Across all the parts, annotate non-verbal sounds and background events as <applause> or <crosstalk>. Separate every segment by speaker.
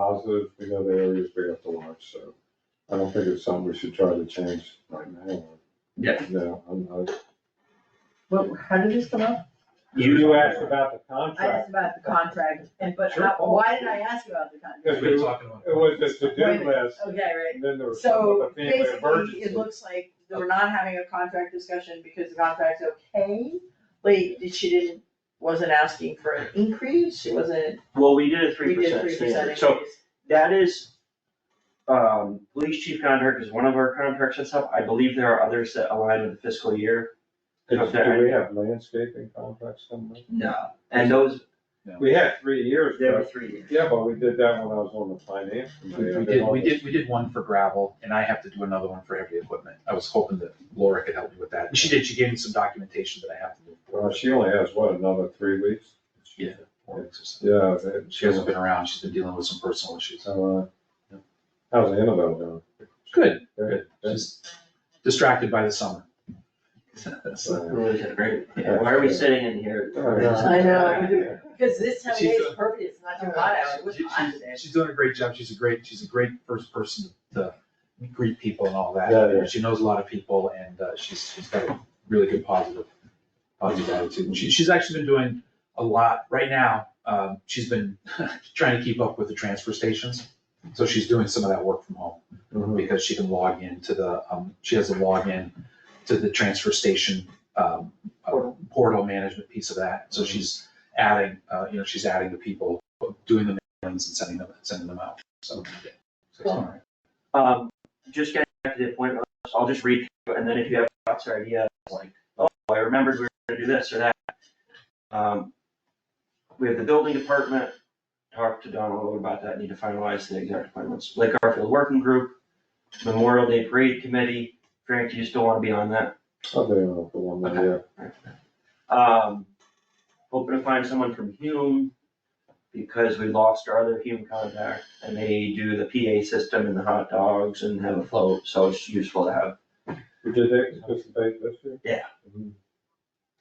Speaker 1: positive, we know the areas we have to watch, so I don't think it's something we should try to change right now.
Speaker 2: Yeah.
Speaker 1: No, I'm not.
Speaker 3: What, how did this come up?
Speaker 4: You asked about the
Speaker 3: I
Speaker 4: contract.
Speaker 3: asked about the contract, and but
Speaker 4: Sure.
Speaker 3: how- why did I ask you about the contract?
Speaker 1: Yes.
Speaker 4: We're talking about.
Speaker 1: It was just a
Speaker 3: Wait a
Speaker 1: to-do list,
Speaker 3: Okay, right.
Speaker 1: and then there was something
Speaker 3: So
Speaker 1: about the family
Speaker 3: basically, it
Speaker 1: emergency.
Speaker 3: looks like we're not having a contract discussion because the contract's okay. Like, did- she didn't, wasn't asking for an increase, she wasn't,
Speaker 2: Well, we did a
Speaker 3: we
Speaker 2: three
Speaker 3: did
Speaker 2: percent
Speaker 3: three percent
Speaker 2: standard,
Speaker 3: increase.
Speaker 2: so that is, um, police chief contract is one of our contracts and stuff, I believe there are others that align with the fiscal year.
Speaker 1: It's- Do we have landscaping contracts coming up?
Speaker 2: No. And those,
Speaker 1: We had three years,
Speaker 2: they were
Speaker 1: but,
Speaker 2: three years.
Speaker 1: yeah, but we did that when I was on the finance
Speaker 5: We
Speaker 1: committee. I
Speaker 5: did, we
Speaker 1: all
Speaker 5: did, we did one for gravel, and I have to do another one for heavy equipment. I was hoping that Laura could help me with that. And She did, she gave me some documentation that I have to do.
Speaker 1: this. Well, she only has, what, another three weeks?
Speaker 5: Yeah. four weeks or something.
Speaker 1: Yeah. they-
Speaker 5: She hasn't been around, she's been dealing with some personal issues.
Speaker 1: So, uh, how's Annabelle doing?
Speaker 5: Good,
Speaker 1: Good.
Speaker 5: she's distracted by the summer. So,
Speaker 1: So,
Speaker 2: Really did great. Yeah, Why are we sitting in here?
Speaker 3: I know.
Speaker 1: yeah.
Speaker 3: Because this time of day
Speaker 5: She's
Speaker 3: is
Speaker 5: a-
Speaker 3: perfect, it's not too hot out, it was
Speaker 5: Oh, She-
Speaker 3: hot
Speaker 5: she's-
Speaker 3: today.
Speaker 5: She's doing a great job, she's a great, she's a great first person to greet people and all that.
Speaker 1: Yeah, yeah.
Speaker 5: She knows a lot of people and uh, she's, she's got a really good positive, positive attitude. And She, she's actually been doing a lot, right now, um, she's been <laughs> trying to keep up with the transfer stations. So she's doing some of that work from home
Speaker 1: Mhm.
Speaker 5: because she can log in to the, um, she has a login to the transfer station, um, uh, portal management piece of that. So she's adding, uh, you know, she's adding the people, doing the mailings and sending them, sending them out, so. yeah. So it's all right.
Speaker 2: Um, just getting back to the appointment, list, I'll just read, through, and then if you have thoughts or ideas, like, oh, I remembered we were gonna do this or that. Um, we have the building department, talked to Don a little about that, need to finalize the exact appointments, Lake Garfield Working Group, Memorial Day Parade Committee, Frank, do you still wanna be on that?
Speaker 1: I'll do another one, then, yeah.
Speaker 2: Um, hoping to find someone from Hume, because we lost our other Hume contact, and they do the PA system and the hot dogs and have a float, so it's useful to have
Speaker 1: We did that participate this year?
Speaker 2: Yeah.
Speaker 1: Mhm.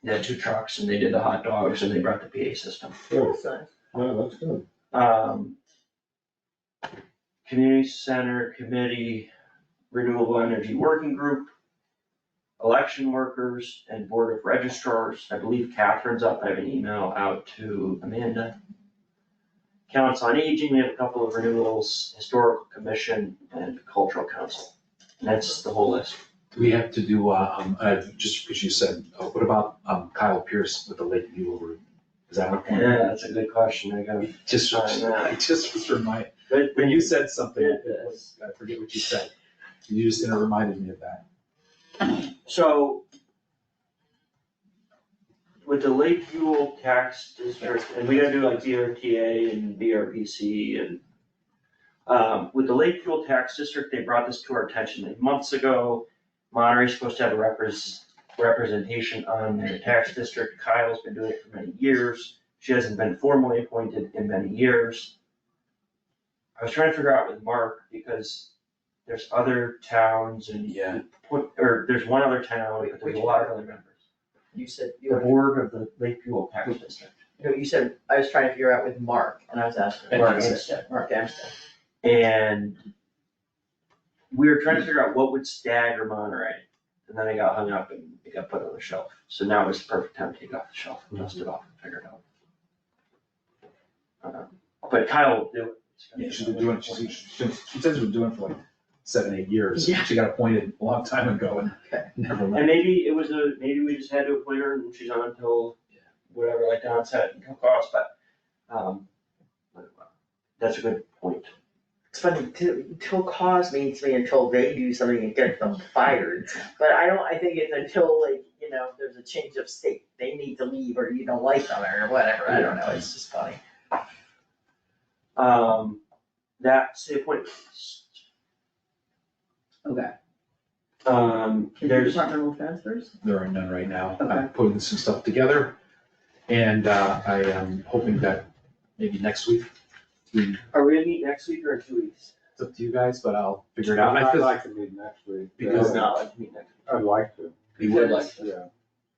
Speaker 2: They had two trucks and they did the hot dogs and they brought the PA system.
Speaker 1: Good.
Speaker 3: So-
Speaker 1: No, that's good.
Speaker 2: Um, Community Center Committee, Renewable Energy Working Group, election workers and Board of registrars. I believe Catherine's up. I have an email out to Amanda. Council on Aging, we have a couple of renewals, Historical Commission and Cultural Council. And That's the whole list.
Speaker 5: Do we have to do, uh, um, uh, just because you said, uh, what about, um, Kyle Pierce with the Lakeview Group? Is that what?
Speaker 2: Yeah, that's a good question. I got.
Speaker 5: Just, <laughs> I just was reminded, when you said something, it was- I forget what you said. You just kinda reminded me of that.
Speaker 2: So with the Lakeview tax district, and we gotta do like BRTA and BRPC and um, with the Lakeview tax district, they brought this to our attention like months ago. Monterey's supposed to have a repres- representation on the tax district. Kyle's been doing it for many years. She hasn't been formally appointed in many years. I was trying to figure out with Mark because there's other towns and
Speaker 5: Yeah.
Speaker 2: put, or there's one other town, but there's a lot of other members.
Speaker 3: You said, you
Speaker 2: The
Speaker 3: were,
Speaker 2: board of the Lakeview Tax District.
Speaker 3: no, you said, I was trying to figure out with Mark, and I was asking
Speaker 5: And
Speaker 3: Mark
Speaker 5: Amstead.
Speaker 3: Amstead, Mark Amstead.
Speaker 2: And we were trying to figure out what would stagger Monterey. And then I got hung up and it got put on the shelf. So now is the perfect time to take it off the shelf, dust it off and figure it out. Um, But Kyle will do it.
Speaker 5: Yeah, she's been doing, it. she's, she's been- she says she's been doing it for like seven, eight years.
Speaker 3: Yeah.
Speaker 5: She got appointed a long time ago and never left.
Speaker 2: And maybe it was a, maybe we just had to appoint her and she's on until whatever, like Don said, it can cost, but, um, that's a good point.
Speaker 3: It's funny, to- until cause means to me until they do something and get them fired, but I don't, I think it's until like, you know, if there's a change of state, they need to leave or you don't like them or whatever, I don't know, it's just funny.
Speaker 2: Um, that's the appointments.
Speaker 3: Okay.
Speaker 2: Um, there's,
Speaker 3: Departmental transfers?
Speaker 5: There are none right now.
Speaker 3: Okay.
Speaker 5: I'm putting some stuff together. And uh, I am hoping that maybe next week, we,
Speaker 2: are we gonna meet next week or in two weeks?
Speaker 5: it's up to you guys, but I'll figure it out. I
Speaker 1: I'd
Speaker 5: feel like
Speaker 1: like to meet next week.
Speaker 5: Because-
Speaker 1: Yeah,
Speaker 2: No, I can meet next week.
Speaker 1: I'd like to,
Speaker 5: we would like.
Speaker 1: yeah.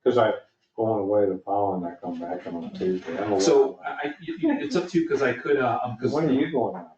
Speaker 1: Cause I going away the following, I come back on Tuesday. I'm away.
Speaker 5: So I, I- you- you- it's up to you, because I could, uh, um, because
Speaker 1: When are you going out?